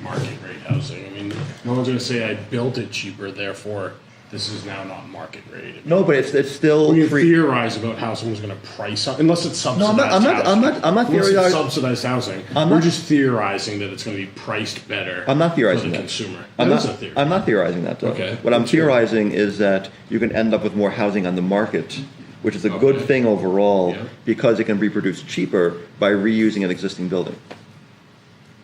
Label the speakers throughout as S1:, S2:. S1: rate housing. I mean, no one's gonna say I built it cheaper, therefore this is now not market rate.
S2: No, but it's, it's still
S1: We can
S2: free.
S1: theorize about how someone's going to price up, unless it's
S2: No, I'm
S1: subsidized.
S2: not- I'm not- I'm
S1: housing.
S2: not- I'm not
S1: Unless it's
S2: theorizing-
S1: subsidized housing.
S2: I'm
S1: We're
S2: not-
S1: just theorizing that it's going to be priced better.
S2: I'm not theorizing
S1: for the
S2: that.
S1: consumer.
S2: I'm
S1: That
S2: not,
S1: is a theory.
S2: I'm not theorizing that though.
S1: Okay.
S2: What I'm
S1: What's your-
S2: theorizing is that you can end up with more housing on the market, which is a good
S1: Okay.
S2: thing overall
S1: Yeah.
S2: because it can be produced cheaper by reusing an existing building.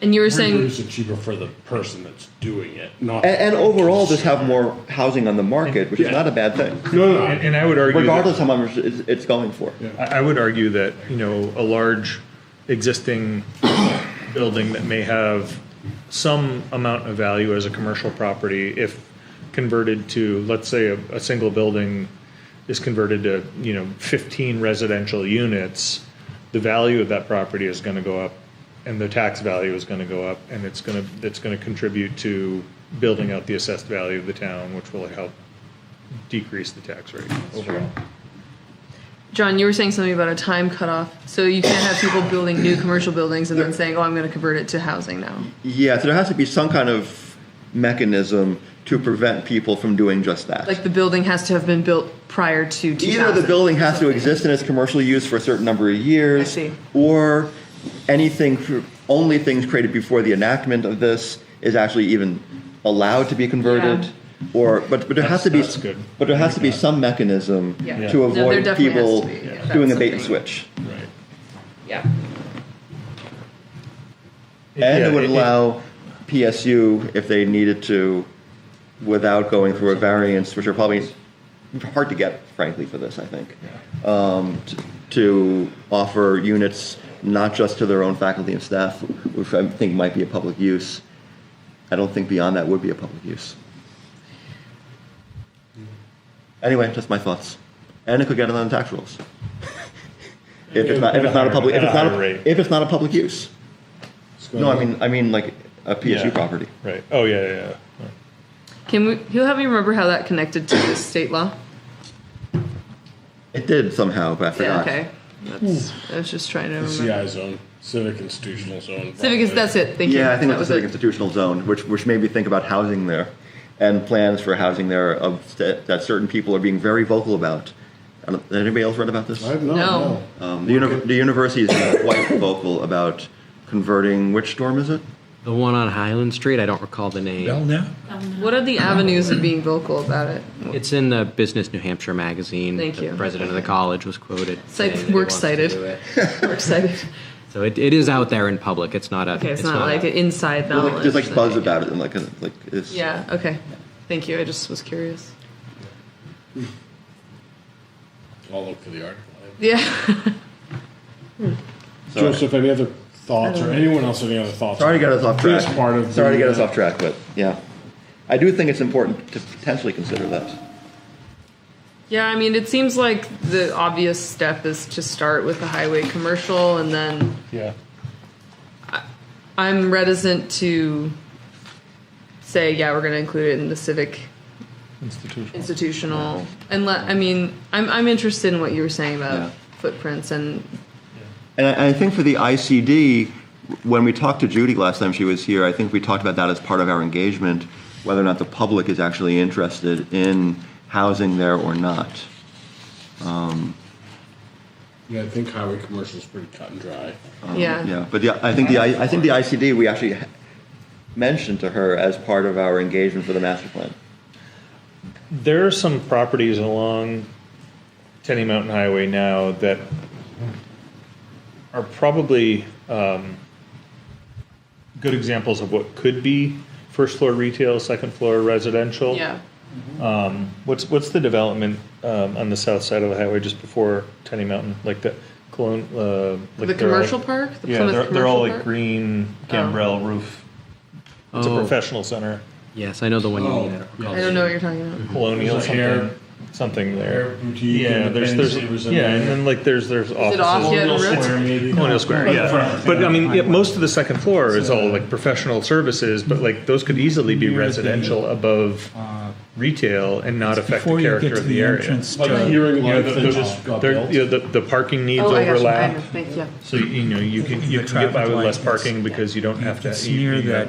S3: And you were saying
S1: Reduce it cheaper for the person that's doing it, not
S2: And, and overall, just have more housing on the market, which is
S1: Yeah.
S2: not a bad thing,
S1: No, no,
S4: And
S1: no.
S4: and I would argue,
S2: regardless
S4: that-
S2: how much it's, it's going for.
S4: I I would argue that, you know, a large existing building that may have some amount of value as a commercial property, if converted to, let's say, a, a single building is converted to, you know, 15 residential units, the value of that property is going to go up and the tax value is going to go up and it's going to, it's going to contribute to building out the assessed value of the town, which will help decrease the tax rate overall.
S3: John, you were saying something about a time cutoff. So you can't have people building new commercial buildings and then saying, "Oh, I'm going to convert it to housing now."
S2: Yeah, so there has to be some kind of mechanism to prevent people from doing just that.
S3: Like the building has to have been built prior to 2000.
S2: Either the building has to exist in its commercial use for a certain number of years,
S3: see.
S2: or anything, cr- only things created before the enactment of this is actually even allowed to be converted. Or, but, but there has
S4: That's-
S2: to be,
S4: that's good.
S2: but there has to be some mechanism
S3: Yeah. Yeah.
S2: to
S3: No, there
S2: avoid
S3: definitely has
S2: people
S3: to be, yeah. Yeah.
S2: doing a
S3: That's
S2: bait and
S3: something.
S2: switch.
S1: Right.
S3: Yeah.
S2: And
S4: Yeah,
S2: it would
S4: it-
S2: allow PSU, if they needed to, without going through a variance, which are probably hard to get, frankly, for this, I think, um, t- to offer units not just to their own faculty and staff, which I think might be a public use. I don't think beyond that would be a public use. Anyway, just my thoughts. And it could get on the tax rolls. If it's not, if it's not a public, if it's not, a- if it's not a public use.
S1: It's
S2: No, I
S1: gonna-
S2: mean, I mean like a PSU
S4: Yeah.
S2: property.
S4: Right. Oh yeah, yeah. yeah.
S3: Can we? He'll have me remember how that connected to the state law.
S2: It did somehow, but I
S3: Yeah.
S2: forgot.
S3: Okay. That's, I was just trying to remember.
S1: CI zone, civic institutional zone.
S3: Civic is that's it. Thank you.
S2: Yeah, I think
S3: that
S2: it's a
S3: was
S2: civic
S3: it.
S2: institutional zone, which which made me think about housing there, and plans for housing there of that, that certain people are being very vocal about. I don't- Has anybody else read about this?
S1: I've not,
S3: No.
S1: no.
S2: Um, the, uni- the university is being quite vocal about converting. Which dorm is it?
S5: The one on Highland Street, I don't recall the name.
S3: What are the avenues of being vocal about it?
S5: It's in the Business New Hampshire magazine.
S3: Thank
S5: the
S3: you.
S5: President of the college was quoted.
S3: It's like
S5: saying that he
S3: we're
S5: wants to
S3: excited.
S5: do it.
S3: We're excited.
S5: So it, it is out there in public. It's not a.
S3: Okay, it's, not, like
S5: a-
S3: inside
S2: Well,
S3: knowledge.
S2: like, there's like
S3: that-
S2: buzz about it, and like a- like it's,
S3: Yeah. Okay. Thank you. I just was curious.
S1: I'll look for the article.
S3: Yeah.
S2: Sorry.
S1: Joseph, any other thoughts, or anyone else have any other thoughts?
S2: Sorry to get us off track.
S1: This part of
S2: Sorry to
S1: the,
S2: get us
S1: uh,
S2: off track, but yeah, I do think it's important to potentially consider that.
S3: Yeah, I mean, it seems like the obvious step is to start with the highway commercial, and then
S4: Yeah.
S3: I'm reticent to say, yeah, we're going to include it in the civic
S4: Institutional.
S3: institutional. Unless, I mean, I'm I'm interested in what you were saying about
S2: Yeah.
S3: footprints, and
S2: And I, I think for the ICD, when we talked to Judy last time she was here, I think we talked about that as part of our engagement, whether or not the public is actually interested in housing there or not.
S1: Yeah, I think highway commercial is pretty cut and dry.
S3: yeah,
S2: Um, Yeah, but the, I think the I, I think the ICD we actually ha- mentioned to her as part of our engagement for the master plan.
S4: There are some properties along Tenny Mountain Highway now that are probably um, good examples of what could be first floor retail, second floor residential.
S3: yeah.
S4: What's what's the development um, on the south side of the highway just before Tenny Mountain, like the Colon, uh, like
S3: the
S4: they're all-
S3: commercial park, the
S4: yeah,
S3: Plymouth
S4: they're, they're all
S3: commercial
S4: like
S3: park?
S4: green gambrel roof. It's a
S5: Oh.
S4: professional center.
S5: Yes, I know the one you
S1: Oh,
S5: mean. I don't recall
S3: I
S5: the
S3: don't know what
S5: name.
S3: you're talking about.
S4: colonial
S1: There's a
S4: something,
S1: hair-
S4: something
S1: hair
S4: there.
S1: boutique
S4: Yeah,
S1: and
S4: there's
S1: Ben
S4: there's
S1: Savers in
S4: yeah,
S1: there.
S4: and then like there's there's offices.
S3: off yet?
S1: Colonial
S3: It's-
S1: Square, maybe.
S4: Colonial Square, yeah.
S1: Front.
S4: But I mean, yeah, most of the second floor is all like professional services, but like those could easily be
S6: Near the- uh,
S4: residential above retail and not affect
S6: Before
S4: the
S6: you
S4: character
S6: get to
S4: of the
S6: the
S4: area.
S6: entrance
S1: Like
S6: to,
S1: hearing
S4: You know,
S1: life
S4: the,
S1: that just
S4: the,
S1: got
S4: they're-
S1: built.
S4: you know, the, the parking needs
S3: Oh, I got you. I know.
S4: overlap,
S3: Thank you.
S4: so you know, you can, you can
S6: The
S4: get by
S6: traffic
S4: with
S6: light
S4: less
S6: is-
S4: parking because you don't have to.
S6: it's
S4: you-
S6: near
S4: you-
S6: that